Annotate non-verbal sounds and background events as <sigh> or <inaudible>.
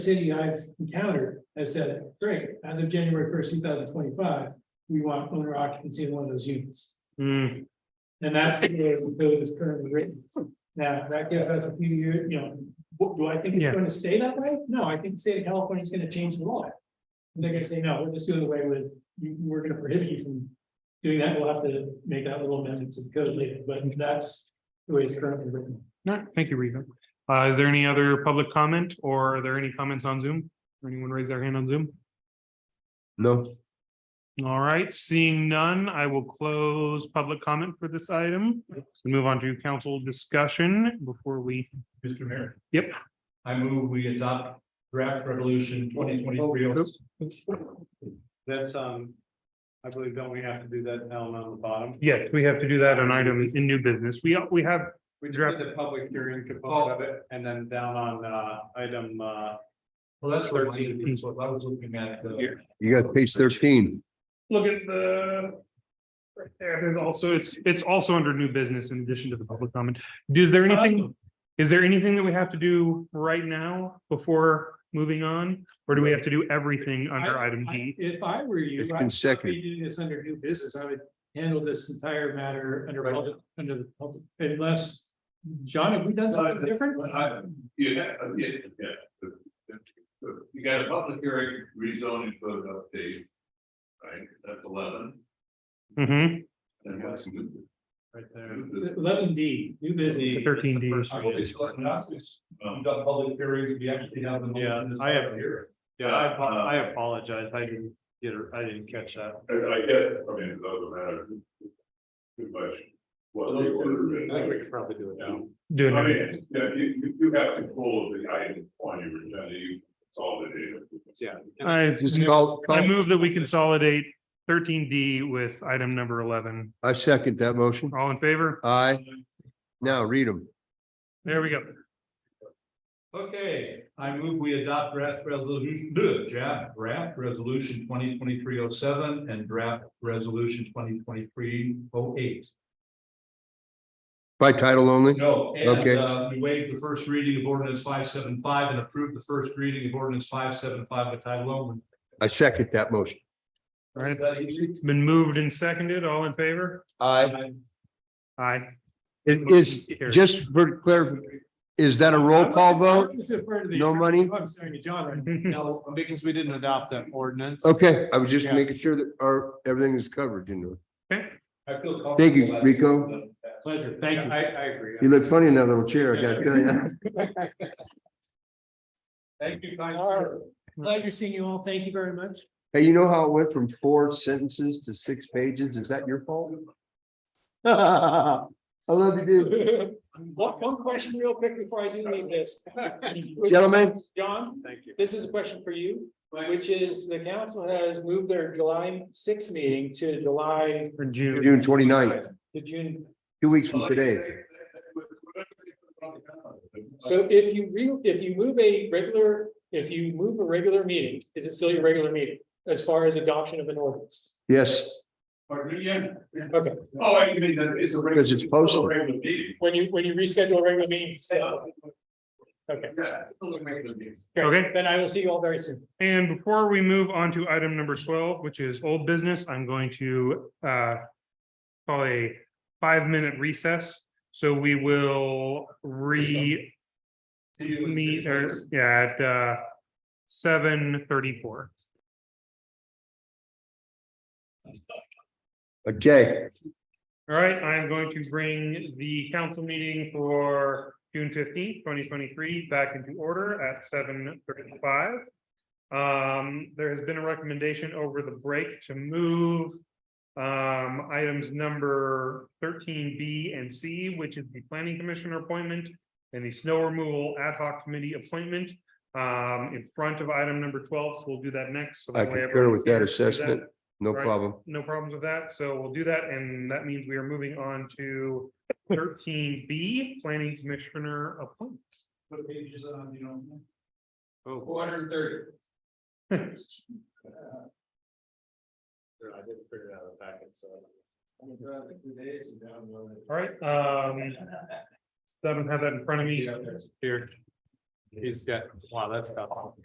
city I've encountered has said, great, as of January first, two thousand twenty-five, we want owner occupancy in one of those units. Hmm, And that's the way the code is currently written. Now, that gives us a few years, you know, what- do I think it's Yeah. gonna stay that way? No, I think the state of California is gonna change the law. And They're gonna say, no, we're just doing away with, you, we're gonna prohibit you from doing that. We'll have to make that little amendment to the code later, but that's the way it's currently written. no, thank you, Rita. Uh, is there any other public comment or are there any comments on Zoom? Anyone raise their hand on Zoom? No, All right, seeing none, I will close public comment for this item. We Move on to council discussion before we, Mr. Mayor. Yep. I move we adopt draft resolution twenty twenty-three. oh That's, um, I believe, don't we have to do that element on the bottom? yes, we have to do that on items in new business. We, we have, We just did the public hearing component of it, and then down on, uh, item, uh, Well, that's what I was what I was looking at. uh, the- Here. you got page thirteen. look at the right there, there's also, it's, it's also under new business in addition to the public comment. Is there Uh, Um, anything, is there anything that we have to do right now before moving on? Or do we have to do everything under I- item D? I- If I were you. It's I would been not be seconded. Doing this under new business, I would handle this entire matter under, public- under the public, unless, John, have we done something different? Well, I, you have, uh, yeah, yeah. You got a public hearing rezoning code update. Right, that's eleven, Mhm. and what's new? right there. New Eleven D, new business. It's 13 D. That's the first one. business. We've Um, got public hearings, we actually have them. Yeah, I have here. Uh, Yeah, I, apo- I apologize, I didn't get, it- I didn't catch that. I, I get, I mean, it doesn't matter. Good question. What the order is. I think we could probably do it now. Doing I it. mean, yeah, you, you, you have control of the item on your agenda, you consolidate it. Yeah. I, Just call, I call, move that we consolidate thirteen D with item number eleven. I second that motion. All in favor? Aye. Now read them. There we go. Okay, I move we adopt draft resolution, bleh, draft, draft resolution twenty twenty-three oh seven and draft resolution twenty twenty-three oh eight. By title only? No, Okay. and uh, we waived the first reading of ordinance five seven five and approved the first reading of ordinance five seven five by title only. I second that motion. All right. That easy? It's been moved and seconded. All in favor? Aye. Aye. It is, <laughs> just for clarif, is that a roll call vote? This is for the- Oh, No money? I'm sorry, John, right? <laughs> No, because we didn't adopt that ordinance. Okay, I was just making sure that our, everything is covered, you know. I feel comfortable. Thank you, that- Rico. pleasure, thank you. I, I agree. You look funny in that little chair, I gotta <laughs> tell you. Thank you, kind All right. sir. Pleasure seeing you all, thank you very much. Hey, you know how it went from four sentences to six pages? Is that your fault? <laughs> I love you, dude. <laughs> One, one question real quick before I do leave this. Gentlemen, John, Thank you. this is a question for you, which is the council has moved their July sixth meeting to July, For June. June 29th, to June two weeks from today. So if you re, if you move a regular, if you move a regular meeting, is it still your regular meeting as far as adoption of an ordinance? Yes, Pardon me, yeah? Okay, Oh, I mean, that it's a. regular- Because it's posted. a Regular meeting. when you, when you reschedule a regular meeting, say, okay, Yeah, it's still a regular meeting. Okay. great, then I will see you all very soon. And before we move on to item number twelve, which is old business, I'm going to uh. Call a five-minute recess, so we will re. See you in Meet three or, days. yeah, at uh. Seven thirty-four. okay. All right, I am going to bring the council meeting for June fifteenth, twenty twenty-three back into order at seven thirty-five. Um, there has been a recommendation over the break to move. um, items number thirteen B and C, which is the planning commissioner appointment. And the snow removal ad hoc committee appointment, um, in front of item number twelve, so we'll do that next. so I that way concur with everyone's that here to do assessment. No Right. problem. no problems with that, so we'll do that, and that means we are moving on to thirteen B, planning commissioner appointment. What page is it on, you know? Oh, Four hundred and thirty. I didn't figure it out in the packet, so. All right, um, doesn't have that in front of me. Here. He's got, wow, that's tough.